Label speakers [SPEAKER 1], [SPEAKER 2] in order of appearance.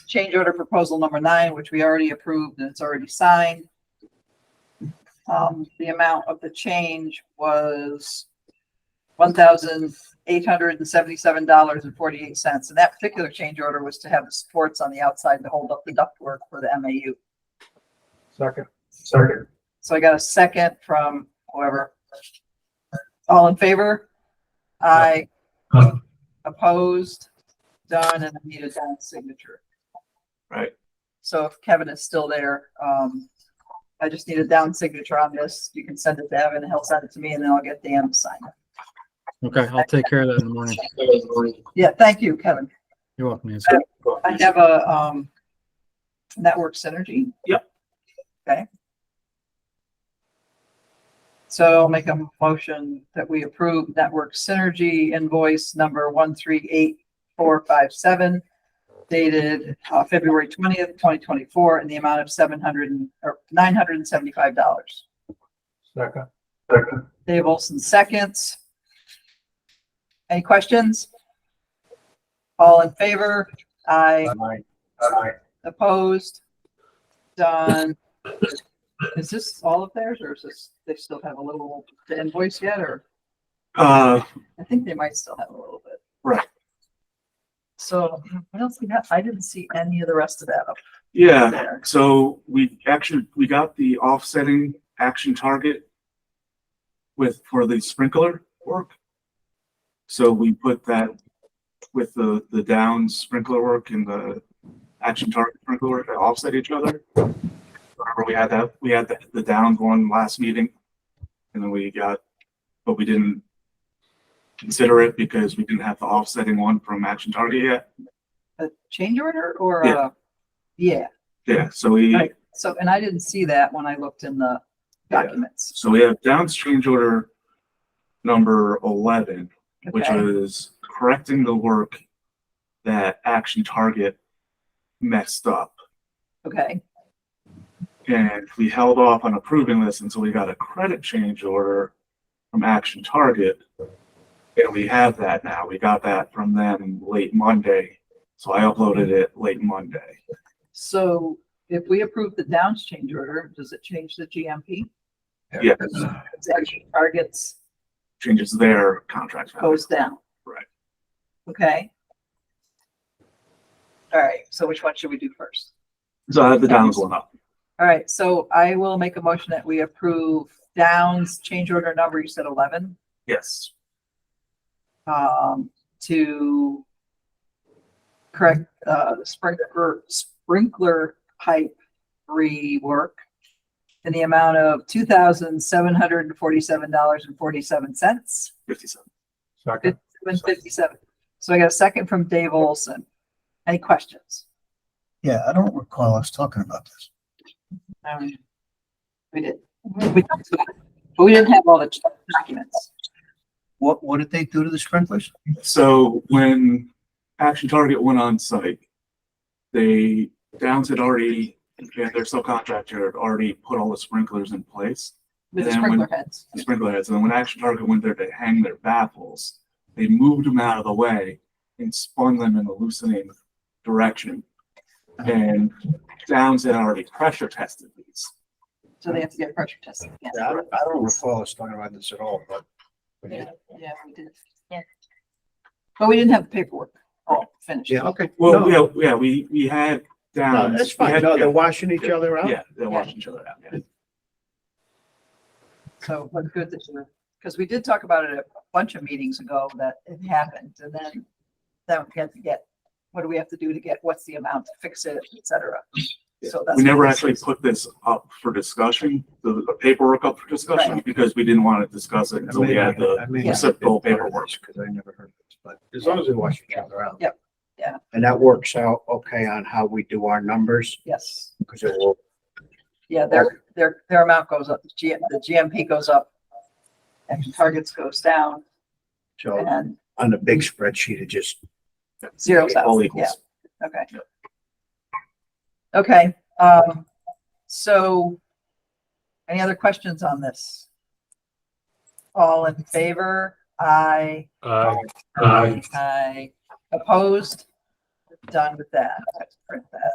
[SPEAKER 1] change order proposal number nine, which we already approved and it's already signed. Um, the amount of the change was one thousand eight hundred and seventy-seven dollars and forty-eight cents. And that particular change order was to have the supports on the outside to hold up the ductwork for the MAU.
[SPEAKER 2] Second. Second.
[SPEAKER 1] So I got a second from whoever. All in favor? Aye.
[SPEAKER 2] Aye.
[SPEAKER 1] Opposed? Done, and I need a done signature.
[SPEAKER 2] Right.
[SPEAKER 1] So if Kevin is still there, um, I just need a down signature on this. You can send it to Evan, he'll send it to me, and then I'll get Dan to sign it.
[SPEAKER 3] Okay, I'll take care of that in the morning.
[SPEAKER 1] Yeah, thank you, Kevin.
[SPEAKER 3] You're welcome, Nancy.
[SPEAKER 1] I have a, um, network synergy.
[SPEAKER 2] Yep.
[SPEAKER 1] Okay. So I'll make a motion that we approve network synergy invoice number one, three, eight, four, five, seven dated, uh, February twentieth, twenty twenty-four in the amount of seven hundred and, or nine hundred and seventy-five dollars.
[SPEAKER 2] Second. Second.
[SPEAKER 1] Dave Olson seconds. Any questions? All in favor? Aye.
[SPEAKER 2] Aye. Aye.
[SPEAKER 1] Opposed? Done. Is this all of theirs or is this, they still have a little to invoice yet or?
[SPEAKER 4] Uh,
[SPEAKER 1] I think they might still have a little bit.
[SPEAKER 4] Right.
[SPEAKER 1] So what else we got? I didn't see any of the rest of that up
[SPEAKER 4] yeah,
[SPEAKER 1] there.
[SPEAKER 4] so we actually, we got the offsetting action target with, for the sprinkler work. So we put that with the, the down sprinkler work and the action target sprinkler work that offset each other. Remember, we had that, we had the, the downs one last meeting, and then we got, but we didn't consider it because we didn't have the offsetting one from action target yet.
[SPEAKER 1] A change order or
[SPEAKER 4] Yeah.
[SPEAKER 1] a? Yeah,
[SPEAKER 4] Yeah, so we.
[SPEAKER 1] Right. so, and I didn't see that when I looked in the
[SPEAKER 4] Yeah.
[SPEAKER 1] documents.
[SPEAKER 4] So we have Downs change order number eleven, which
[SPEAKER 1] Okay.
[SPEAKER 4] is correcting the work that Action Target messed up.
[SPEAKER 1] Okay,
[SPEAKER 4] And we held off on approving this until we got a credit change order from Action Target. And we have that now. We got that from them late Monday. So I uploaded it late Monday.
[SPEAKER 1] so if we approve the Downs change order, does it change the GMP?
[SPEAKER 4] Yes,
[SPEAKER 1] It's actually targets
[SPEAKER 4] changes their contract value.
[SPEAKER 1] goes down.
[SPEAKER 4] Right.
[SPEAKER 1] Okay. All right, so which one should we do first?
[SPEAKER 4] So I have the Downs one up.
[SPEAKER 1] All right, so I will make a motion that we approve Downs change order number, you said eleven,
[SPEAKER 4] Yes.
[SPEAKER 1] um, to correct, uh, the sprinkler, sprinkler pipe rework in the amount of two thousand seven hundred and forty-seven dollars and forty-seven cents,
[SPEAKER 4] Fifty-seven.
[SPEAKER 2] Second.
[SPEAKER 1] seven fifty-seven. So I got a second from Dave Olson. Any questions?
[SPEAKER 5] Yeah, I don't recall us talking about this.
[SPEAKER 1] Um, We did. We talked about it, but we didn't have all the documents.
[SPEAKER 5] What, what did they do to the sprinklers?
[SPEAKER 4] So when Action Target went on site, they, Downs had already, and their subcontractor had already put all the sprinklers in place,
[SPEAKER 1] with the
[SPEAKER 4] Then when-
[SPEAKER 1] sprinkler heads.
[SPEAKER 4] the sprinkler heads. And then when Action Target went there to hang their baffles, they moved them out of the way and spun them in a loosening direction. And Downs had already pressure tested these.
[SPEAKER 1] So they have to get pressure tested again.
[SPEAKER 5] Yeah, I don't, I don't recall us talking about this at all, but. we did.
[SPEAKER 1] Yeah, we did. Yeah. But we didn't have the paperwork all finished.
[SPEAKER 5] Yeah, okay.
[SPEAKER 4] Well,
[SPEAKER 5] No,
[SPEAKER 4] yeah, yeah, we, we had
[SPEAKER 5] no,
[SPEAKER 4] Downs.
[SPEAKER 5] That's
[SPEAKER 4] we
[SPEAKER 5] fine.
[SPEAKER 4] had-
[SPEAKER 5] No, they're
[SPEAKER 4] yeah,
[SPEAKER 5] washing each other out.
[SPEAKER 4] Yeah, they're washing each other out, yeah.
[SPEAKER 1] So what's good that you because we did talk about it a bunch of meetings ago that it happened and then then we had to get, what do we have to do to get, what's the amount to fix it, et cetera. So that's.
[SPEAKER 4] We never
[SPEAKER 1] what this
[SPEAKER 4] actually
[SPEAKER 1] is.
[SPEAKER 4] put this up for discussion, the the paperwork up for discussion, because we didn't want to discuss it
[SPEAKER 5] I
[SPEAKER 4] until we
[SPEAKER 5] may
[SPEAKER 4] had
[SPEAKER 5] not-
[SPEAKER 4] the
[SPEAKER 5] I may not
[SPEAKER 4] reciprocal
[SPEAKER 5] have been part of
[SPEAKER 4] paperwork.
[SPEAKER 5] this, Cause I never heard this, but as long as they wash each other out.
[SPEAKER 1] Yep, yeah.
[SPEAKER 5] And that works out okay on how we do our numbers,
[SPEAKER 1] Yes.
[SPEAKER 5] because it will,
[SPEAKER 1] Yeah, their, their, their amount goes up, the G- the GMP goes up.
[SPEAKER 4] Mm-hmm.
[SPEAKER 1] And targets goes down
[SPEAKER 4] Oh.
[SPEAKER 5] so
[SPEAKER 1] and
[SPEAKER 5] on the big spreadsheet, it just
[SPEAKER 1] zeros out,
[SPEAKER 4] All
[SPEAKER 1] yeah,
[SPEAKER 4] equals.
[SPEAKER 1] okay. Okay, um, so. Any other questions on this? All in favor? Aye.
[SPEAKER 2] Aye. Aye.
[SPEAKER 1] Aye. Opposed? done with that. Let's print that.